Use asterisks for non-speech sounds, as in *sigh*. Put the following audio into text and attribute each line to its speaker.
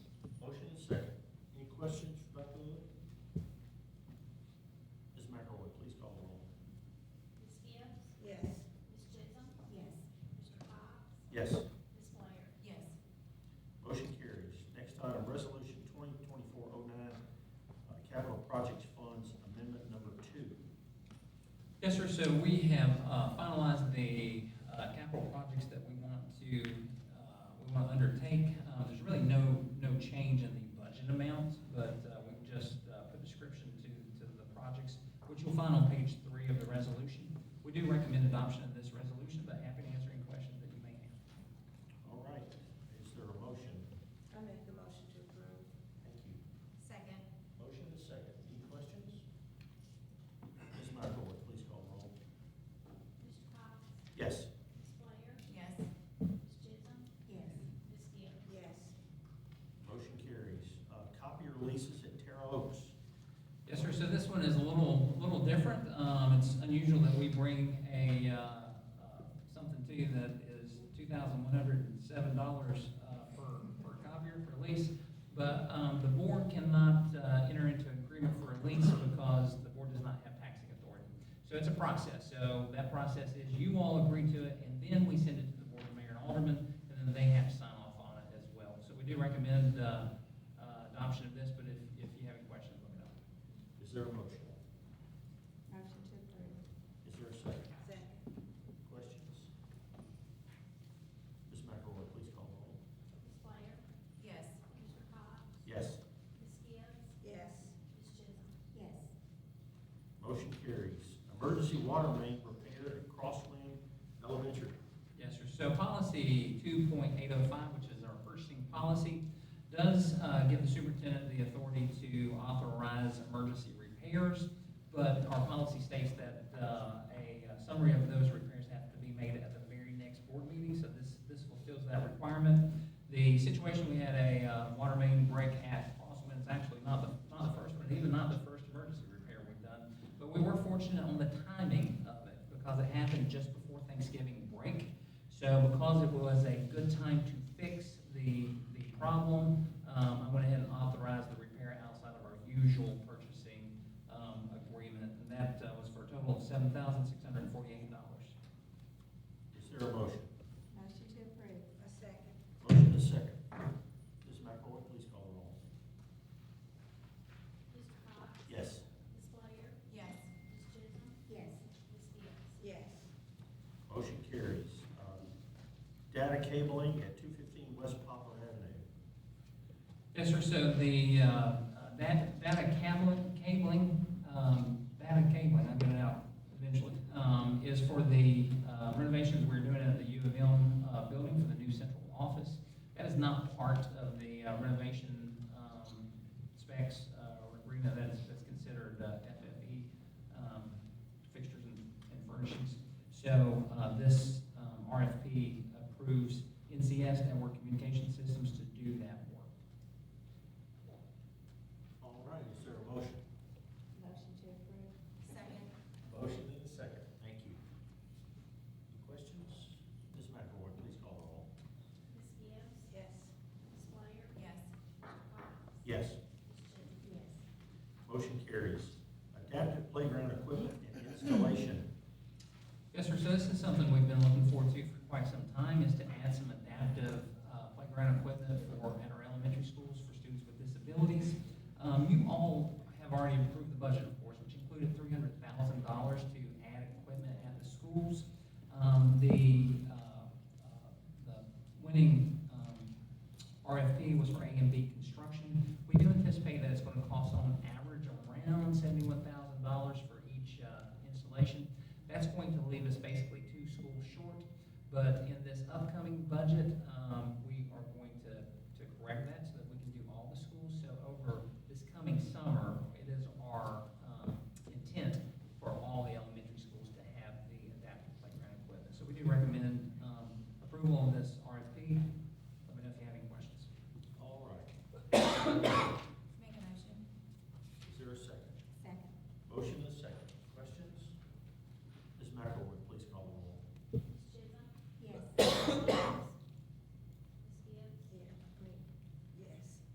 Speaker 1: oh uh,
Speaker 2: Yes, sir, so we have uh, finalized the uh, capital projects that we want to, uh, we want to undertake. Uh, There's really no, no change in the budget amount, but uh, we've just uh, put description to, to the projects, which you'll find on page three of the resolution. We do recommend adoption of this resolution, but happy to answer any questions that you may have.
Speaker 1: All right, is there a motion?
Speaker 3: I make the motion to approve.
Speaker 1: Thank you.
Speaker 4: Second.
Speaker 1: Motion is second. Any questions? Ms. McElroy, please call roll.
Speaker 5: Mr. Cox?
Speaker 1: Yes.
Speaker 5: Ms. Blair?
Speaker 4: Yes.
Speaker 5: Ms. Chisholm?
Speaker 3: Yes.
Speaker 5: Ms. Gill?
Speaker 3: Yes.
Speaker 1: Motion carries. Uh, Copier leases at Terra Oaks.
Speaker 2: Yes, sir, so this one is a little, little different. Um, It's unusual that we bring a, uh, uh, something to you that is $2,107 uh, per, per copier for lease. But um, the board cannot uh, enter into an agreement for a lease because the board does not have taxing authority. So it's a process. So that process is you all agree to it, and then we send it to the board of mayor and alderman, and then they have to sign off on it as well. So we do recommend uh, uh, adoption of this, but if, if you have any questions, let me know.
Speaker 1: Is there a motion?
Speaker 3: Motion to approve.
Speaker 1: Is there a second?
Speaker 3: Second.
Speaker 1: Questions? Ms. McElroy, please call roll.
Speaker 5: Ms. Blair?
Speaker 4: Yes.
Speaker 5: Mr. Cox?
Speaker 1: Yes.
Speaker 5: Ms. Gibbs?
Speaker 3: Yes.
Speaker 5: Ms. Chisholm?
Speaker 3: Yes.
Speaker 1: Motion carries. Emergency water main repair at Crossland Elementary.
Speaker 2: Yes, sir. So policy two point eight oh five, which is our purchasing policy, does uh, give the superintendent the authority to authorize emergency repairs, but our policy states that uh, a summary of those repairs have to be made at the very next board meeting, so this, this fulfills that requirement. The situation, we had a uh, water main break at Crossman, it's actually not the, not the first one, even not the first emergency repair we've done, but we were fortunate on the timing of it because it happened just before Thanksgiving break. So because it was a good time to fix the, the problem, um, I went ahead and authorized the repair outside of our usual purchasing, um, agreement. And that uh, was for a total of seven thousand six hundred and forty-eight dollars.
Speaker 1: Is there a motion?
Speaker 3: Motion to approve. A second.
Speaker 1: Motion is second. Ms. McElroy, please call roll.
Speaker 5: Mr. Cox?
Speaker 1: Yes.
Speaker 5: Ms. Blair?
Speaker 4: Yes.
Speaker 5: Ms. Chisholm?
Speaker 3: Yes.
Speaker 5: Ms. Gibbs?
Speaker 3: Yes.
Speaker 1: Motion carries. Um, Data cabling at two fifteen West Poplar Avenue.
Speaker 2: Yes, sir, so the, uh, uh, that, data cabling, cabling, um, data cabling, I'll get it out eventually, um, is for the uh, renovations we're doing at the U of M, uh, building for the new central office. That is not part of the uh, renovation, um, specs, uh, or agreement that is, that's considered uh, FFE, um, fixtures and and furnishings. So, uh, this, um, RFP approves NCS, Network Communication Systems, to do that work.
Speaker 1: All right, is there a motion?
Speaker 3: Motion to approve.
Speaker 4: Second.
Speaker 1: Motion and a second. Thank you. Any questions? Ms. McElroy, please call the roll.
Speaker 5: Ms. Gibbs?
Speaker 3: Yes.
Speaker 5: Ms. Blair?
Speaker 4: Yes.
Speaker 5: Mr. Cox?
Speaker 1: Yes.
Speaker 5: Ms. Chisholm?
Speaker 3: Yes.
Speaker 1: Motion carries. Adaptive playground equipment and installation.
Speaker 2: Yes, sir, so this is something we've been looking forward to for quite some time, is to add some adaptive uh, playground equipment for, at our elementary schools for students with disabilities. Um, You all have already approved the budget, of course, which included three hundred thousand dollars to add equipment at the schools. Um, The, uh, uh, the winning um, RFP was for A and B construction. We do anticipate that it's going to cost on average around seventy-one thousand dollars for each uh, installation. That's going to leave us basically two schools short, but in this upcoming budget, um, um, um,
Speaker 3: *coughs*